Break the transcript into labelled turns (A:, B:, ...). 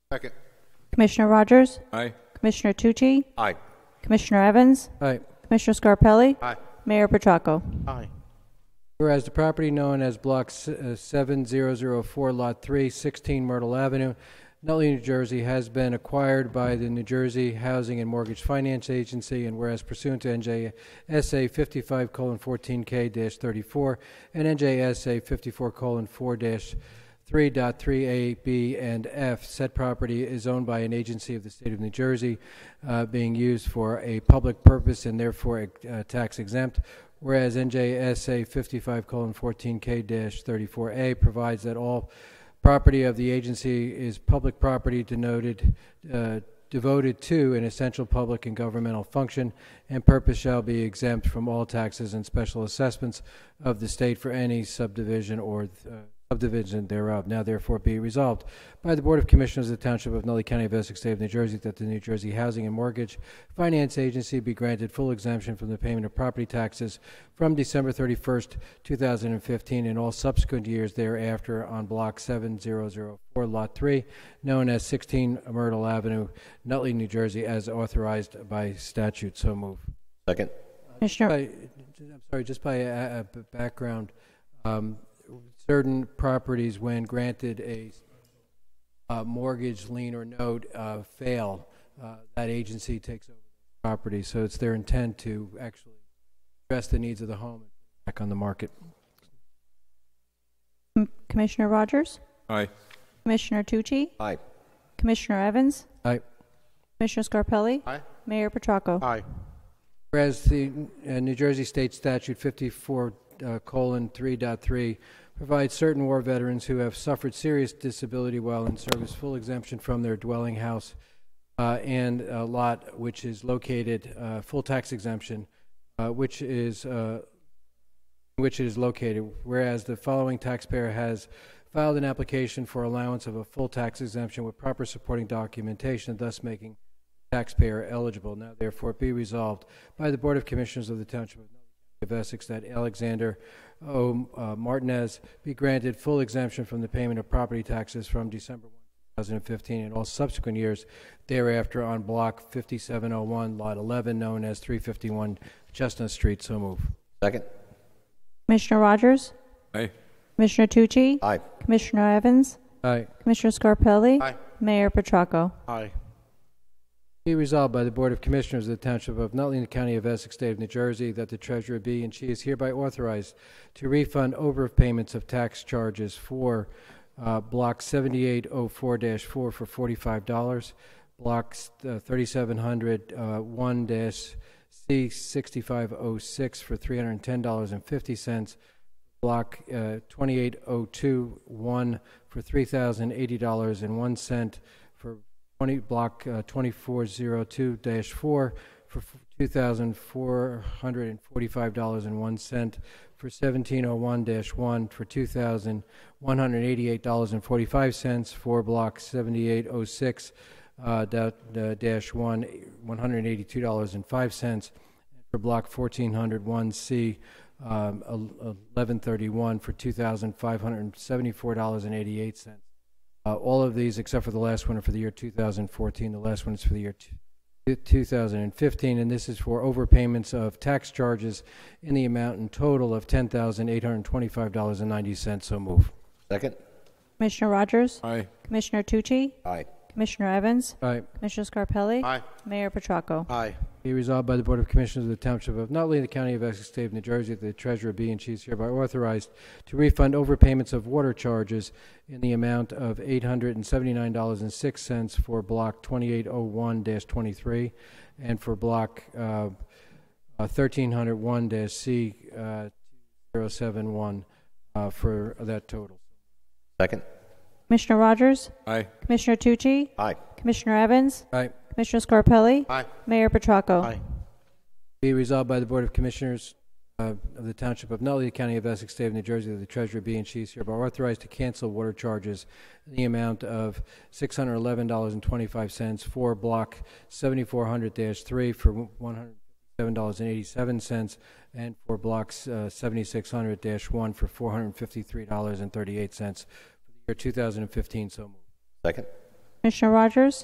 A: Second.
B: Commissioner Rogers?
C: Aye.
B: Commissioner Tucci?
C: Aye.
B: Commissioner Evans?
D: Aye.
B: Commissioner Scarpelli?
A: Aye.
B: Mayor Petracco?
A: Aye.
D: Whereas the property known as Block s- uh, 7004, Lot 3, 16 Myrtle Avenue, Nutley, New Jersey, has been acquired by the New Jersey Housing and Mortgage Finance Agency, and whereas pursuant to NJSA 55:14K-34 and NJSA 54:4-. 3.3A, B, and F. Said property is owned by an agency of the state of New Jersey, uh, being used for a public purpose and therefore uh, tax exempt, whereas NJSA 55:14K-34A provides that all property of the agency is public property denoted uh, devoted to an essential public and governmental function and purpose shall be exempt from all taxes and special assessments of the state for any subdivision or uh, subdivision thereof. Now therefore be resolved by the Board of Commissioners of the Township of Nutley County of Essex State of New Jersey that the New Jersey Housing and Mortgage Finance Agency be granted full exemption from the payment of property taxes from December 31st, 2015 and all subsequent years thereafter on Block 7004, Lot 3, known as 16 Myrtle Avenue, Nutley, New Jersey, as authorized by statute. So move.
C: Second.
B: Commissioner,
D: By, I'm sorry, just by uh, uh, background, um, certain properties, when granted a uh, mortgage, lien, or note, uh, fail, uh, that agency takes over the property. So it's their intent to actually address the needs of the home and back on the market.
B: M- Commissioner Rogers?
C: Aye.
B: Commissioner Tucci?
C: Aye.
B: Commissioner Evans?
D: Aye.
B: Commissioner Scarpelli?
A: Aye.
B: Mayor Petracco?
A: Aye.
D: Whereas the uh, New Jersey State Statute 54 uh, colon 3.3 provides certain war veterans who have suffered serious disability while in service full exemption from their dwelling house uh, and uh, lot which is located uh, full tax exemption, uh, which is uh, which it is located, whereas the following taxpayer has filed an application for allowance of a full tax exemption with proper supporting documentation, thus making taxpayer eligible. Now therefore be resolved by the Board of Commissioners of the Township of Nutley County of Essex that Alexander O. uh, Martinez be granted full exemption from the payment of property taxes from December 1, 2015 and all subsequent years thereafter on Block 5701, Lot 11, known as 351 Chestnut Street. So move.
C: Second.
B: Commissioner Rogers?
C: Aye.
B: Commissioner Tucci?
C: Aye.
B: Commissioner Evans?
D: Aye.
B: Commissioner Scarpelli?
A: Aye.
B: Mayor Petracco?
A: Aye.
D: Be resolved by the Board of Commissioners of the Township of Nutley and the County of Essex, State of New Jersey, that the treasurer be and she is hereby authorized to refund overpayments of tax charges for uh, Block 7804-4 for $45, Block uh, 3701-C6506 for $310.50, Block uh, 28021 for $3,080.01 for 20, Block uh, 2402-4 for f- $2,445.01, for 1701-1 for $2,188.45, for Block 7806-1, uh, $182.05, for block 1401C, um, el- 1131 for $2,574.88. Uh, All of these, except for the last one, are for the year 2014. The last one is for the year two- 2015, and this is for overpayments of tax charges in the amount in total of $10,825.90. So move.
C: Second.
B: Commissioner Rogers?
C: Aye.
B: Commissioner Tucci?
C: Aye.
B: Commissioner Evans?
D: All right.
B: Commissioner Scarpelli?
A: Aye.
B: Mayor Petracco?
A: Aye.
D: Be resolved by the Board of Commissioners of the Township of Nutley and the County of Essex, State of New Jersey, that the treasurer be and she is hereby authorized to refund overpayments of water charges in the amount of $879.06 for Block 2801-23 and for Block uh, uh, 1301-C071 uh, for that total.
C: Second.
B: Commissioner Rogers?
C: Aye.
B: Commissioner Tucci?
C: Aye.
B: Commissioner Evans?
D: All right.
B: Commissioner Scarpelli?
A: Aye.
B: Mayor Petracco?
A: Aye.
D: Be resolved by the Board of Commissioners uh, of the Township of Nutley, County of Essex, State of New Jersey, that the treasurer be and she is hereby authorized to cancel water charges in the amount of $611.25 for Block 7400-3 for $157.87, and for Blocks uh, 7600-1 for $453.38 for the year 2015. So moved.
C: Second.
B: Commissioner Rogers?